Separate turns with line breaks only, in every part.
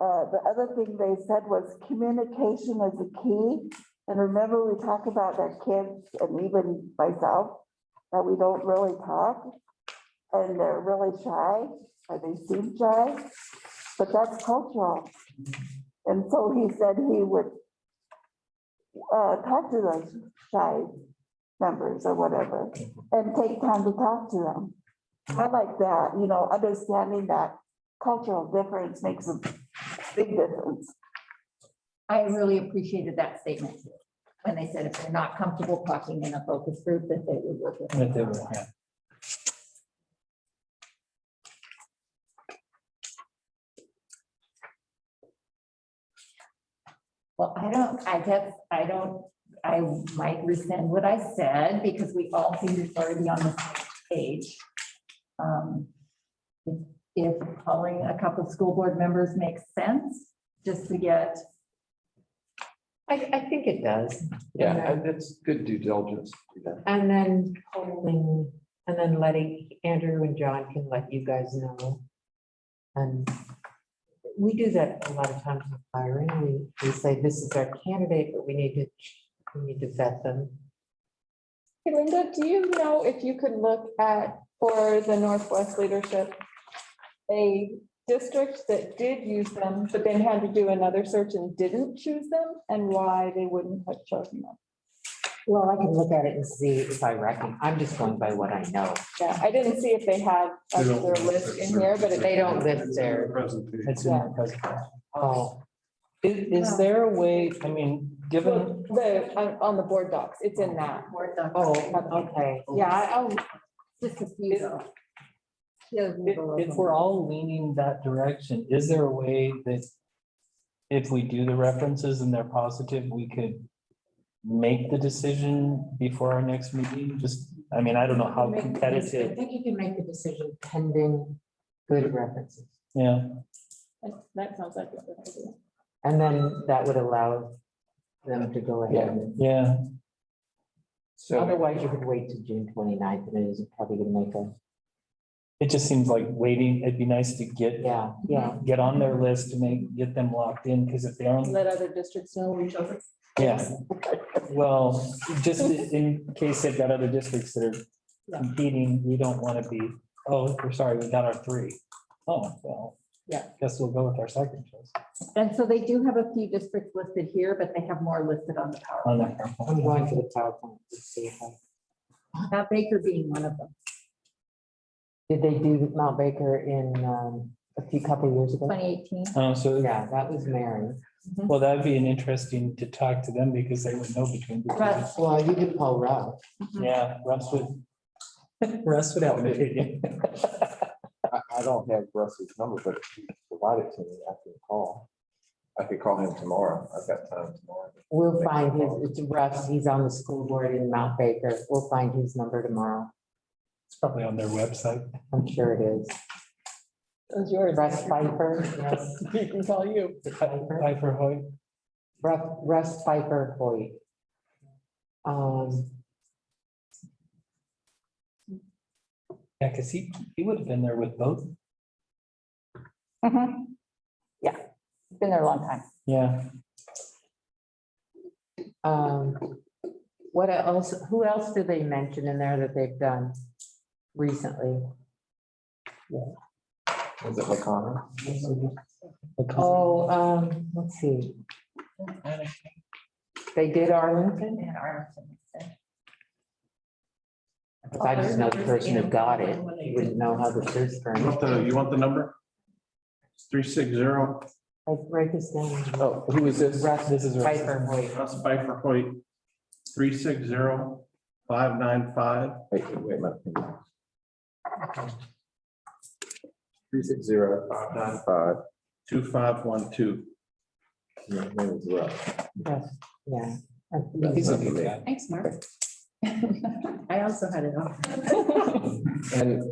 Uh, the other thing they said was communication is a key. And remember, we talk about that kids and even myself, that we don't really talk. And they're really shy, or they seem shy, but that's cultural. And so he said he would uh, talk to those shy members or whatever, and take time to talk to them. I like that, you know, understanding that cultural difference makes a big difference.
I really appreciated that statement too, when they said if they're not comfortable talking in a focus group, that they would work with.
That they were, yeah.
Well, I don't, I guess, I don't, I might rescind what I said because we all seem to already on the same page. Um, if- If calling a couple of school board members makes sense, just to get,
I, I think it does.
Yeah, and it's good due diligence. to do that.
And then holding, and then letting Andrew and John can let you guys know. And we do that a lot of times with hiring. We, we say, this is our candidate, but we need to, we need to vet them.
Hey, Linda, do you know if you could look at, for the Northwest Leadership, a district that did use them, but then had to do another search and didn't choose them, and why they wouldn't have chosen them?
Well, I can look at it and see if I reckon. I'm just going by what I know.
Yeah, I didn't see if they had
They
their
don't
list in here, but it-
They don't live there.
Presentation.
It's in the presentation.
Oh,
Is, is there a way, I mean, given,
well, the, on, on the board docs, it's in that.
more than
oh, okay.
Yeah, I- I'll,
oh, just a few. though. Just a
if,
little
if
of
we're all leaning that direction, is there a way that if we do the references and they're positive, we could make the decision before our next meeting? Just, I mean, I don't know how
I
competitive,
think you can make the decision pending good references.
yeah.
that sounds like. a good idea.
And then that would allow them to go ahead. and-
Yeah,
So
Otherwise, you could wait to June 29th, and it isn't probably gonna make a,
it just seems like waiting, it'd be nice to get,
yeah, yeah.
get on their list to make, get them locked in, because if they aren't,
Let other districts know we chose it.
yeah. Well, just in case they've got other districts that are competing, we don't want to be, oh, we're sorry, we got our three. Oh, well.
Yeah.
Guess we'll go with our second choice
And so they do have a few districts listed here, but they have more listed on the power.
on that.
I'm going to the PowerPoint to see if I,
Matt Baker being one of them,
did they do Mount Baker in um, a few couple years ago?
twenty eighteen.
Um, so,
Yeah, that was Mary.
well, that'd be an interesting to talk to them because they would know between. the two.
Russ.
Well, you did Paul Rudd.
Yeah, Russ would. Russ would help me.
I, I don't have Russ's number, but if you provide it to me, I can call. I could call him tomorrow. I've got time tomorrow.
We'll find his, it's Russ, he's on the school board in Mount Baker. We'll find his number tomorrow.
It's probably on their website.
I'm sure it is.
It was yours.
Russ Piper, yes.
He can call you.
Piper Hoy.
Russ- Russ Piper Hoyt. Um,
Yeah, because he, he would have been there with both.
Been there a long time.
Yeah,
Um, what else, who else did they mention in there that they've done recently?
Is it Lacana?
Oh, um, let's see, they did Arlington,
And Arlington.
If I just know the person who got it, you wouldn't know how the search
You
firm.
want the, you want the number? Three six zero,
I write this down,
Oh, who is this?
Russ
This is Russ.
Piper Hoyt,
Russ Bifer Hoyt, three six zero, five nine five,
Wait, wait a minute. Three six zero nine five.
two five one two.
His name is Russ.
Russ, yeah.
He's a good guy.
Thanks, Mark. I also had it on.
And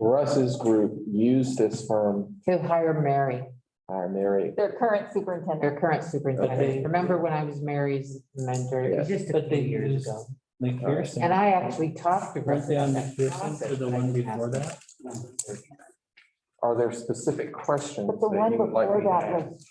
Russ's group used this firm,
He'll hire Mary,
uh, Mary.
Their current superintendent.
their current superintendent, remember when I was Mary's mentor, it was just a
But
few
they
years
used
ago.
McPherson.
And I actually talked to
Weren't
Russ.
they on
about that
McPherson
process
for the
that I
one
was
before
asking.
that?
Are there specific questions?
But the
that
one
you would like
before
me to
that
ask?
was